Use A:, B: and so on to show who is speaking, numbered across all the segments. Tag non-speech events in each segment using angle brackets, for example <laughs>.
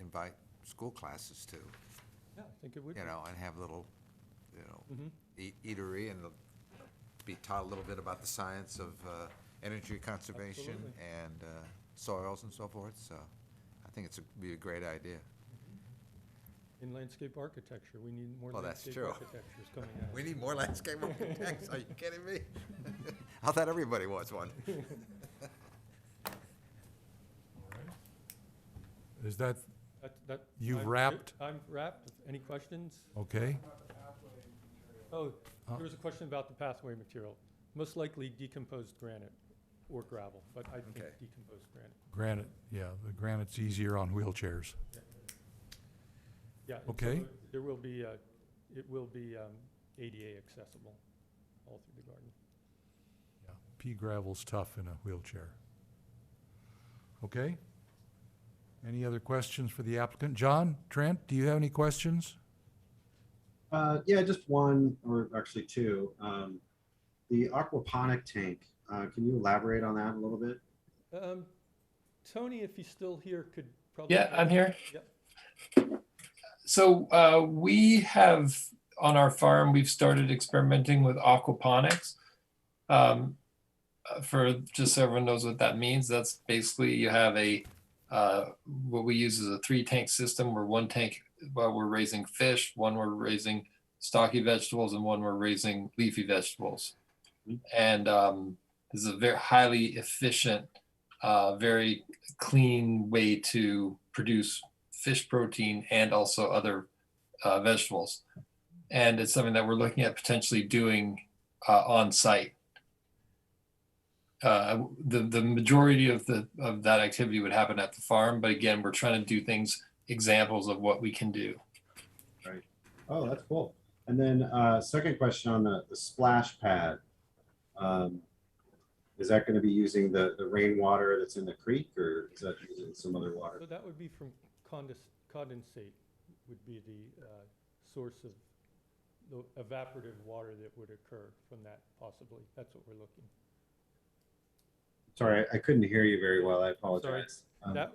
A: invite school classes to,
B: Yeah, I think it would be.
A: you know, and have little, you know,
B: Mhm.
A: eat- eatery and be taught a little bit about the science of uh, energy conservation
B: Absolutely.
A: and uh, soils and so forth, so I think it's, a- be a great idea.
B: In landscape architecture, we need more
A: Well, that's
B: landscape
A: true.
B: architectures coming out.
A: We need more landscape architects, are you kidding me? <laughs> I thought everybody wants <laughs> one.
C: Is that,
B: <laughs> That- that-
C: You've
B: I'm-
C: wrapped?
B: I'm wrapped. Any questions?
C: okay?
B: Oh,
C: Huh?
B: there was a question about the pathway material. Most likely decomposed granite or gravel, but I think
A: Okay.
B: decomposed granite.
C: Granite, yeah, the granite's easier on wheelchairs.
B: Yeah. and so
C: Okay.
B: it- There will be, uh, it will be um, ADA accessible all through the garden.
C: Yeah, Pea gravel's tough in a wheelchair. Okay? Any other questions for the applicant? John, Trent, do you have any questions?
D: Uh, yeah, just one or actually two. Um, the aquaponic tank. Uh, can you elaborate on that a little bit?
B: Um, Tony, if he's still here, could probably.
E: Yeah, I'm here.
B: Yep.
E: So uh, we have on our farm, we've started experimenting with aquaponics. Um, uh, for just so everyone knows what that means, that's basically you have a uh, what we use is a three tank system where one tank well, we're raising fish, one we're raising stocky vegetables, and one we're raising leafy vegetables.
B: Mm-hmm.
E: And um, this is a very highly efficient, uh, very clean way to produce fish protein and also other uh, vegetables. And it's something that we're looking at potentially doing uh, on site. Uh, the the majority of the of that activity would happen at the farm, but again, we're trying to do things examples of what we can do.
D: Oh, that's cool. And then uh, second question on the, the splash pad. Um, is that going to be using the, the rainwater that's in the creek or is that using some other water?
B: So that would be from condens- condensate, would be the uh, source of the evaporative water that would occur from that possibly. That's what we're looking.
D: Sorry, I, I couldn't hear you very well. I apologize. Um,
B: That,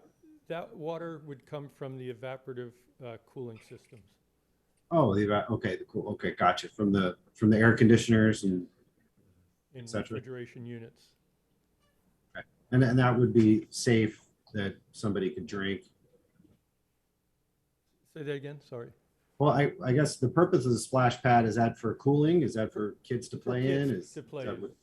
B: that water would come from the evaporative uh, cooling systems.
D: oh, the, eva- okay, the cool. Okay, gotcha. From the from the air conditioners and
B: In
D: Gotcha.
B: refrigeration units.
D: and, and that would be safe that somebody could drink
B: Say that again, sorry.
D: Well, I, I guess the purpose of the splash pad, is that for cooling? Is that for kids to play in?
B: kids
D: Is
B: to play
D: that
B: in.
D: what-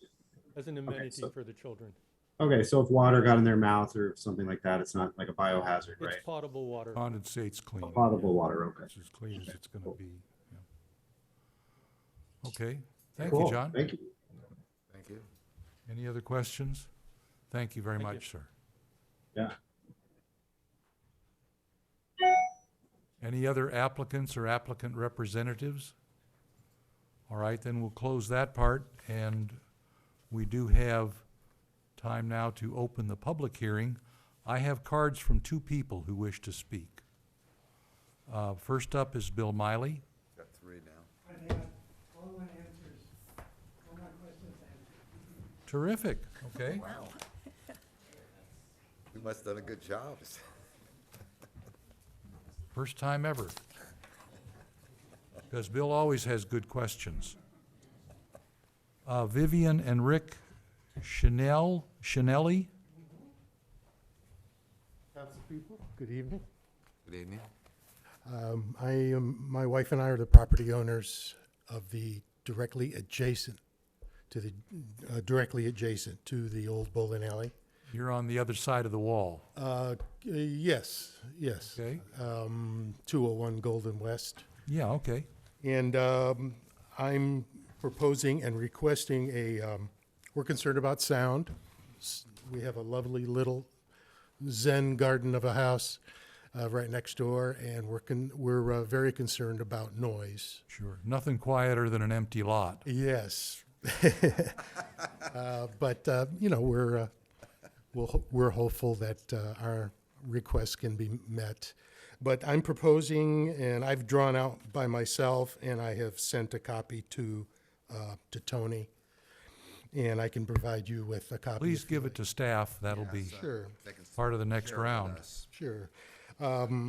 B: As an amenity
D: so-
B: for the children.
D: Okay, so if water got in their mouth or something like that, it's not like a biohazard,
B: It's
D: right?
B: potable water.
C: Condensate's clean.
D: Potable water, okay.
C: It's as clean as it's gonna
D: Cool.
C: be. yeah. Okay, thank you,
D: Cool,
C: John.
D: Thank you.
A: Thank you.
C: Any other questions? Thank you very
B: Thank you.
C: much, sir.
D: Yeah.
C: Any other applicants or applicant representatives? All right, then we'll close that part, and we do have time now to open the public hearing. I have cards from two people who wish to speak. Uh, First up is Bill Miley.
A: Got three now.
F: I have all my answers, all my questions answered.
C: Terrific, okay?
A: We must have done a good job.
C: First time ever. Because Bill always has good questions. Uh, Vivian and Rick Chanel, Chanelli,
G: Councilpeople, good evening.
A: Good evening.
G: Um, I am, my wife and I are the property owners of the directly adjacent to the, uh, directly adjacent to the old bowling alley.
C: you're on the other side of the wall,
G: Uh, yes, yes.
C: okay?
G: Um, two oh one Golden West.
C: Yeah, okay.
G: And um, I'm proposing and requesting a, um, we're concerned about sound. S- We have a lovely little zen garden of a house uh, right next door, and we're, con- we're uh, very concerned about noise.
C: Sure. Nothing quieter than an empty lot.
G: Yes. <laughs> Uh, But, uh, you know, we're, uh, we'll ho- we're hopeful that uh, our requests can be met. But I'm proposing, and I've drawn out by myself, and I have sent a copy to, uh, to Tony. And I can provide you with a copy.
C: Please
G: if-
C: give it to uh, staff, that'll be
G: Sure,
A: They can s-
C: part of the next
A: share with
C: round.
A: us.
G: sure. Um,